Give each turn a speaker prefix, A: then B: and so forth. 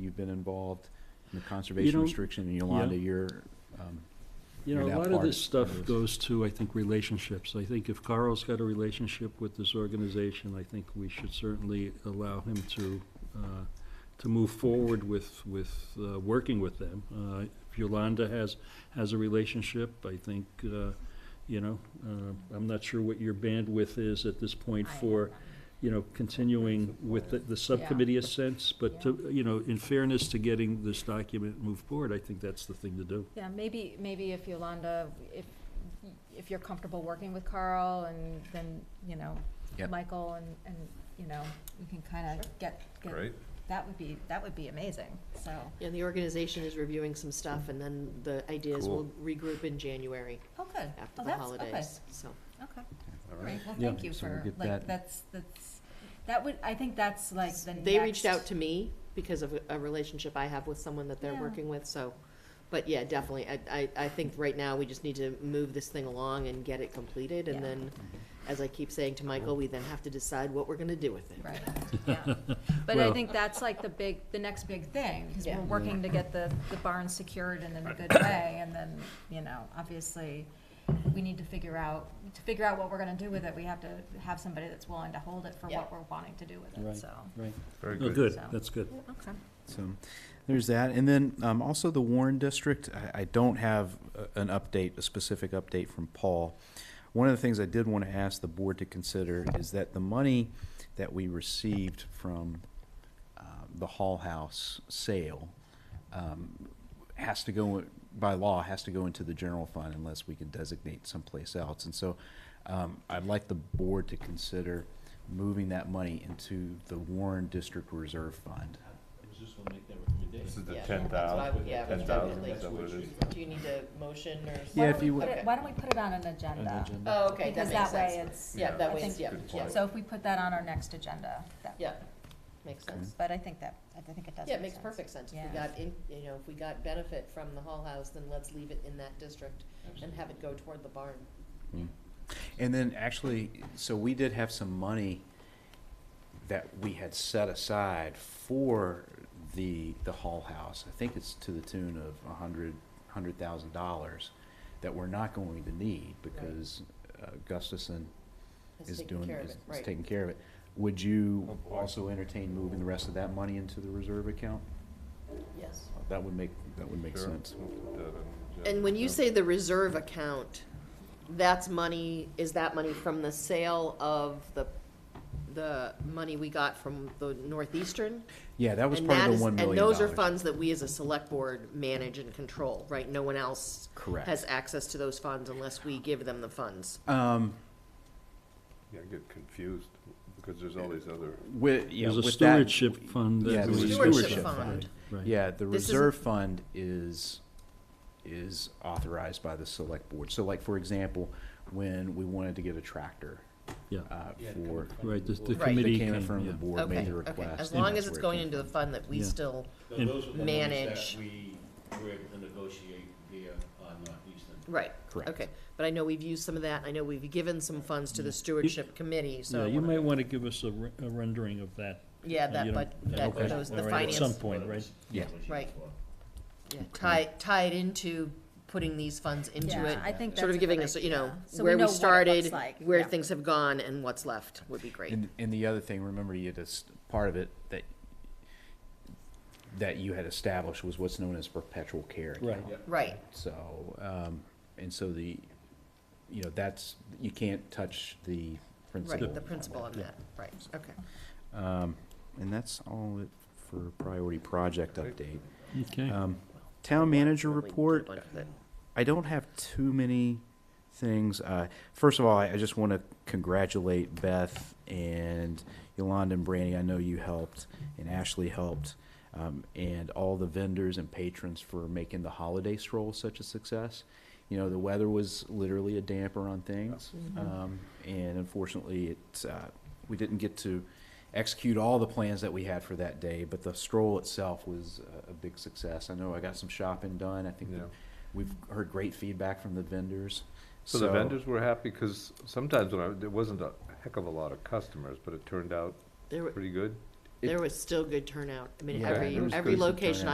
A: you've been involved in the conservation
B: know-
A: restriction, and Yolanda,
B: Yeah.
A: you're, um,
B: You know,
A: You're
B: a
A: now
B: lot of
A: part
B: this stuff
A: of this.
B: goes to, I think, relationships. I think if Carl's got a relationship with this organization, I think we should certainly allow him to, uh, to move forward with, with, uh, working with them. Uh, If Yolanda has, has a relationship, I think, uh, you know, uh, I'm not sure what your bandwidth is at this point
C: I-
B: for, you know, continuing with the, the subcommittee a sense, but to, you know, in fairness to getting this document moved forward, I think that's the thing to do.
C: Yeah, maybe, maybe if Yolanda, if, if you're comfortable working with Carl and then, you know,
A: Yep.
C: Michael and, and, you know, you can kind of get, get,
D: Right?
C: that would be, that would be amazing, so.
E: And the organization is reviewing some stuff, and then the ideas
D: Cool.
E: will regroup in January
C: Oh, good.
E: after
C: Oh,
E: the
C: that's-
E: holidays, so.
C: Okay, okay.
D: All right.
C: Great, well,
A: Yeah.
C: thank you
A: So we'll
C: for,
A: get
C: like,
A: that-
C: that's, that's, that would, I think that's like the next.
E: They reached out to me because of a- a relationship I have with someone that they're
C: Yeah.
E: working with, so, but yeah, definitely. I, I, I think right now, we just need to move this thing along and get it completed, and
C: Yeah.
E: then, as I keep saying to Michael, we then have to decide what we're gonna do with it.
C: Right, yeah. But I
B: Well-
C: think that's like the big, the next big thing, because
E: Yeah.
C: we're working to get the, the barn secured and in a good way, and then, you know, obviously, we need to figure out, to figure out what we're gonna do with it, we have to have somebody that's willing to hold it for
E: Yeah.
C: what we're wanting to do with
B: Right.
C: it, so.
B: Right.
D: Very
B: Oh,
D: good.
B: good,
C: So-
B: that's good.
C: Okay.
A: So there's that. And then um, also the Warren District, I, I don't have a- an update, a specific update from Paul. One of the things I did want to ask the board to consider is that the money that we received from uh, the Hall House sale um, has to go, by law, has to go into the general fund unless we can designate someplace else. And so um, I'd like the board to consider moving that money into the Warren District Reserve Fund.
D: This is the
E: Yeah.
D: ten
E: That's what I
D: thousand,
E: would- yeah,
D: ten
E: that's what I would
D: thousand, is that
E: like.
D: what it is?
E: Do you need a motion or?
A: Yeah, if you would-
E: Okay.
C: Why don't we put it on an agenda?
E: Oh, okay, that
C: Because
E: makes
C: that way
E: sense.
C: it's,
E: Yeah, that
C: I
E: way,
C: think-
E: it's- yeah,
D: Good
E: yeah,
D: point.
C: so if we put that on our next agenda, that.
E: yeah, makes sense.
C: But I think that, I think it does
E: Yeah, it
C: make
E: makes
C: sense.
E: perfect sense. If
C: Yeah.
E: we got in, you know, if we got benefit from the Hall House, then let's leave it in that district and have it go toward the barn.
A: And then actually, so we did have some money that we had set aside for the, the Hall House. I think it's to the tune of a hundred, hundred thousand dollars that we're not going to need because uh, Gustafson
E: It's
A: is
E: taking
A: doing,
E: care of
A: is
E: it,
A: is
E: right.
A: taking care of it. Would you
D: Oh, boy.
A: also entertain moving the rest of that money into the reserve account?
E: Yes.
A: That would make, that would make
D: Sure.
A: sense.
D: We'll put that in, yeah.
E: And when you
D: Yeah.
E: say the reserve account, that's money, is that money from the sale of the, the money we got from the Northeastern?
A: Yeah, that was
E: And
A: part
E: that
A: of
E: is-
A: the one million
E: And those are
A: dollars.
E: funds that we as a select board manage and control, right? No one else
A: Correct.
E: has access to those funds unless we give them the funds.
A: Um,
D: Yeah, I get confused, because there's all these other,
A: with, yeah,
B: There's a
A: with that-
B: stewardship fund
A: yeah,
B: that
A: there's
B: we.
A: a
E: stewardship fund.
B: Right, right.
A: Yeah, the
E: This is a-
A: reserve fund is, is authorized by the select board. So like, for example, when we wanted to get a tractor,
B: yeah,
A: uh, for,
B: right, the, the
E: Right.
A: they
B: committee
A: came
B: came,
A: in front of the
B: yeah.
A: board,
E: Okay,
A: made the
E: okay.
A: request.
E: As
B: and
E: long
A: that's
E: as
A: where
E: it's
A: it
E: going
A: came
E: into the
A: from.
E: fund that we
B: Yeah.
E: still,
F: So
B: And-
F: those are the
E: manage.
F: ones that we were able to negotiate via uh, Northeastern.
E: right,
A: Correct.
E: okay. But I know we've used some of that, I know we've given some funds to the stewardship committee, so.
B: Yeah,
E: I
B: you
A: uh,
E: wanna-
B: might want to give us a re- a rendering of that.
E: Yeah,
B: uh,
E: that,
B: you know,
E: but, that,
B: okay,
E: those, the
B: all right, At some
E: finance,
B: point, right?
A: Yeah.
E: Right. yeah,
A: Okay.
E: tie, tie it into putting these funds into
C: Yeah,
E: it.
C: I think
E: Sort
C: that's a
E: of giving
C: good
E: us, you know,
C: idea. So we
E: where
C: know
E: we
C: what it looks
E: started,
C: like,
E: where
C: yeah.
E: things have gone, and what's left would be great.
A: And, and the other thing, remember you had this, part of it that, that you had established was what's known as perpetual care account.
B: Right.
E: Right,
A: So, um, and so the, you know, that's, you can't touch the principal.
E: right, the principle of that, right, okay.
A: Um, and that's all it for priority project update.
B: Okay,
A: Um, town manager
E: Probably did a
A: report,
E: bunch of it.
A: I don't have too many things. Uh, first of all, I, I just want to congratulate Beth and Yolanda and Brandy. I know you helped and Ashley helped, um, and all the vendors and patrons for making the holiday stroll such a success. You know, the weather was literally a damper on things,
D: Mm-hmm.
A: um, and unfortunately, it uh, we didn't get to execute all the plans that we had for that day. But the stroll itself was a, a big success. I know I got some shopping done. I think.
D: Yeah.
A: We've heard great feedback from the vendors.
D: So the vendors were happy, because sometimes when I, there wasn't a heck of a lot of customers, but it turned out
E: There were-
D: pretty good.
E: There was still good turnout. I mean,
A: Yeah,
E: every,
A: there was
E: every
A: decent
E: location
A: turnout.